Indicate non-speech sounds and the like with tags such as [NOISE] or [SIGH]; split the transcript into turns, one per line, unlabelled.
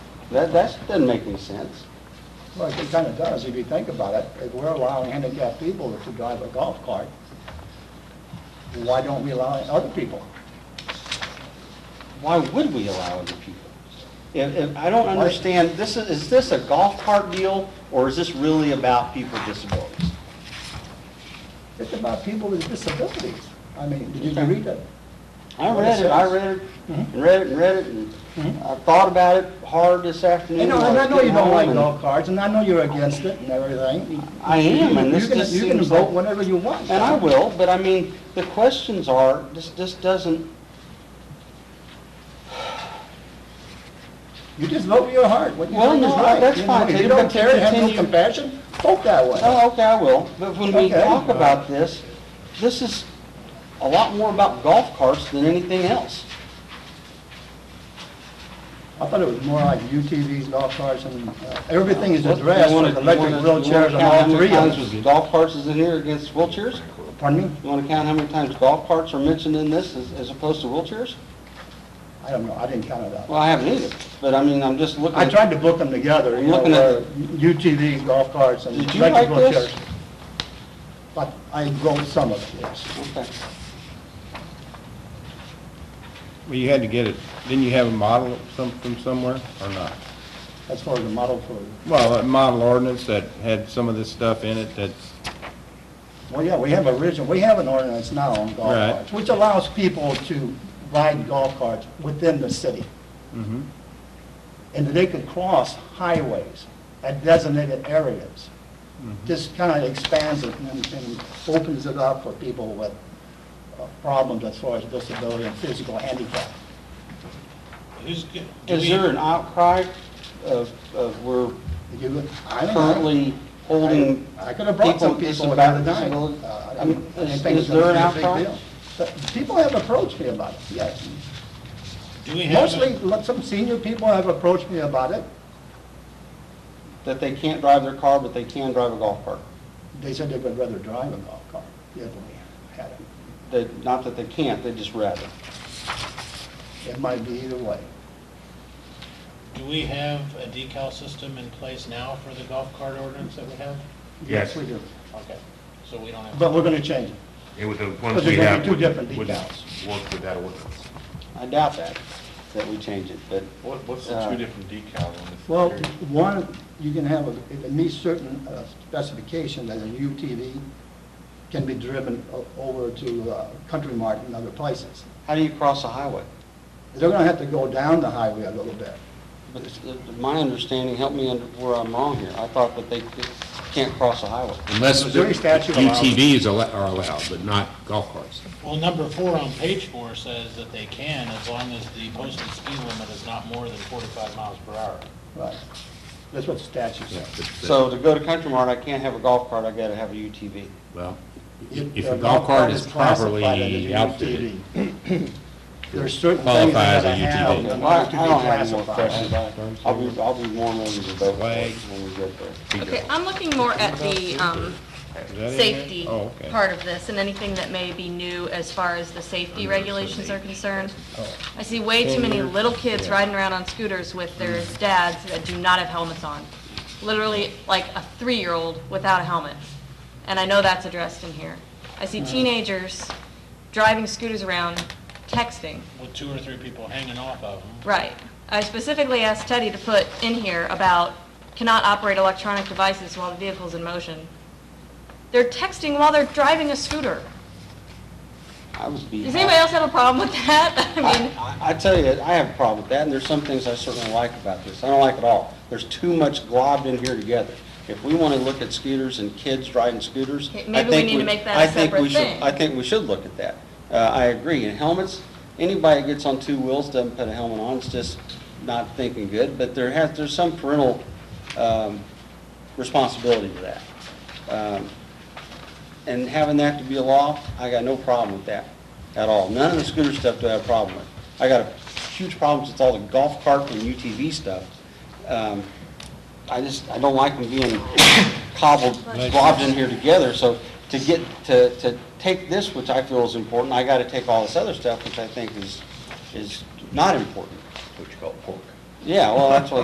That, that doesn't make any sense.
Well, it kind of does, if you think about it. If we're allowing handicapped people to drive a golf cart, why don't we allow other people?
Why would we allow other people? And, and I don't understand, this is, is this a golf cart deal, or is this really about people with disabilities?
It's about people with disabilities. I mean, did you read it?
I
What it
read it, I
says.
read it,
Mhm.
and read it, and read it, and
Mhm.
I thought about it hard this afternoon.
You know,
while
and I know you
was
don't
getting
like
home,
golf carts, and I know you're against it and everything.
I am, and
You
this
can-
just
You can
seems like-
vote whenever you want.
And I will, but I mean, the questions are, this, this doesn't,
You just vote with your heart. What you
Well,
think is
no,
right.
that's
You know,
fine.
If
Take
you
it
don't
back.
care, have no
Continue.
compassion, vote that way.
oh, okay, I will, but when we
Okay.
talk about this, this is a lot more about golf carts than anything else.
I thought it was more like UTVs, golf carts, and uh, everything is
What-
addressed
you wanna-
with electric
you wanna- you
wheelchairs
wanna
and
count how
all
many
three
times
of
was
them.
Golf carts is in here against wheelchairs?
Pardon me?
You wanna count how many times golf carts are mentioned in this as, as opposed to wheelchairs?
I don't know, I didn't count it up.
Well, I haven't either, but I mean, I'm just looking.
I
at-
tried to book them together,
I'm
you know, uh,
looking at-
where UTVs, golf carts, and
Did you
electric
write this?
wheelchairs. But I wrote some of it, yes.
Okay.
Well, you had to get it, didn't you have a model of some- from somewhere, or not?
As far as the model for,
Well, a model ordinance that had some of this stuff in it that's,
well, yeah, we have a original, we have an ordinance now on golf
Right.
carts, which allows people to ride golf carts within the city.
mhm.
and that they could cross highways at designated areas. This kind of expands it and and opens it up for people with uh, problems as far as disability and physical handicap.
Is do
Is
we-
there an outcry of, of we're
If you- I don't know.
currently holding
I could have brought
people
some
with
people without a
disabilities?
dime. Uh, I
I mean,
didn't- I didn't
Is
think it was
is there an
gonna be a big
outcry?
deal. But People have approached me about it, yes.
do we have a-
Mostly, look, some senior people have approached me about it.
That they can't drive their car, but they can drive a golf cart?
They said they would rather drive a golf cart if we had it.
That, not that they can't, they just rather.
It might be either way.
Do we have a decal system in place now for the golf cart ordinance that we have?
Yes, we do.
Okay, so we don't have.
But we're gonna change it.
It was the
Because
ones
there's
we
gonna be
have.
two different
would-
decals.
Work with that ordinance.
I doubt that, that we change it, but
What, what's the
Uh,
two different decals on this?
Well,
area?
one, you can have, a- it meets certain uh, specifications that a UTV can be driven o- over to uh, Country Mart and other places.
how do you cross a highway?
They're gonna have to go down the highway a little bit.
But it's- it- my understanding, help me under- where I'm wrong here, I thought that they c- can't cross a highway.
Unless
Missouri statute allows it.
UTVs al- are allowed, but not golf carts.
Well, number four on page four says that they can as long as the posted speed limit is not more than forty-five miles per hour.
Right. That's what the statute
Yeah,
says.
but- but-
So to go to Country Mart, I can't have a golf cart, I gotta have a UTV.
Well,
If
if
the
a golf cart is
classified as a
properly outfitted,
UTV, There's certain things
Qualify
that
as a
gotta have
UTV.
in
Okay, well, I
order
I
to be
don't have any more
classified.
questions, I- I'll be, I'll be more over the vote for it when we get there.
Okay, I'm looking more at the um,
is that in there?
safety
Oh, okay.
part of this and anything that may be new as far as the safety regulations are concerned.
Oh.
I see way too many little kids riding around on scooters with their
Mm.
dads that do not have helmets on. Literally like a three-year-old without a helmet. And I know that's addressed in here. I
Mm.
see teenagers driving scooters around, texting.
With two or three people hanging off of them.
Right. I specifically asked Teddy to put in here about cannot operate electronic devices while the vehicle's in motion. They're texting while they're driving a scooter.
I was beat.
Does anybody else have a problem with that? [LAUGHS] I mean,
I, I I tell you, I have a problem with that, and there's some things I certainly like about this. I don't like it all. There's too much globbed in here together. If we want to look at scooters and kids riding scooters, I
Okay,
think we...
maybe we need to make that a
I think we
separate
should-
thing.
I think we should look at that. Uh, I agree. And helmets, anybody that gets on two wheels doesn't put a helmet on, it's just not thinking good, but there has, there's some parental um, responsibility to that. Um, and having that to be a law, I got no problem with that at all. None of the scooter stuff do I have a problem with. I got a huge problems with all the golf cart and UTV stuff. Um, I just, I don't like them being cobbled, globbed in here together, so to get, to, to take this, which I feel is important, I gotta take all this other stuff, which I think is, is not important.
What you call pork.
Yeah, well, that's what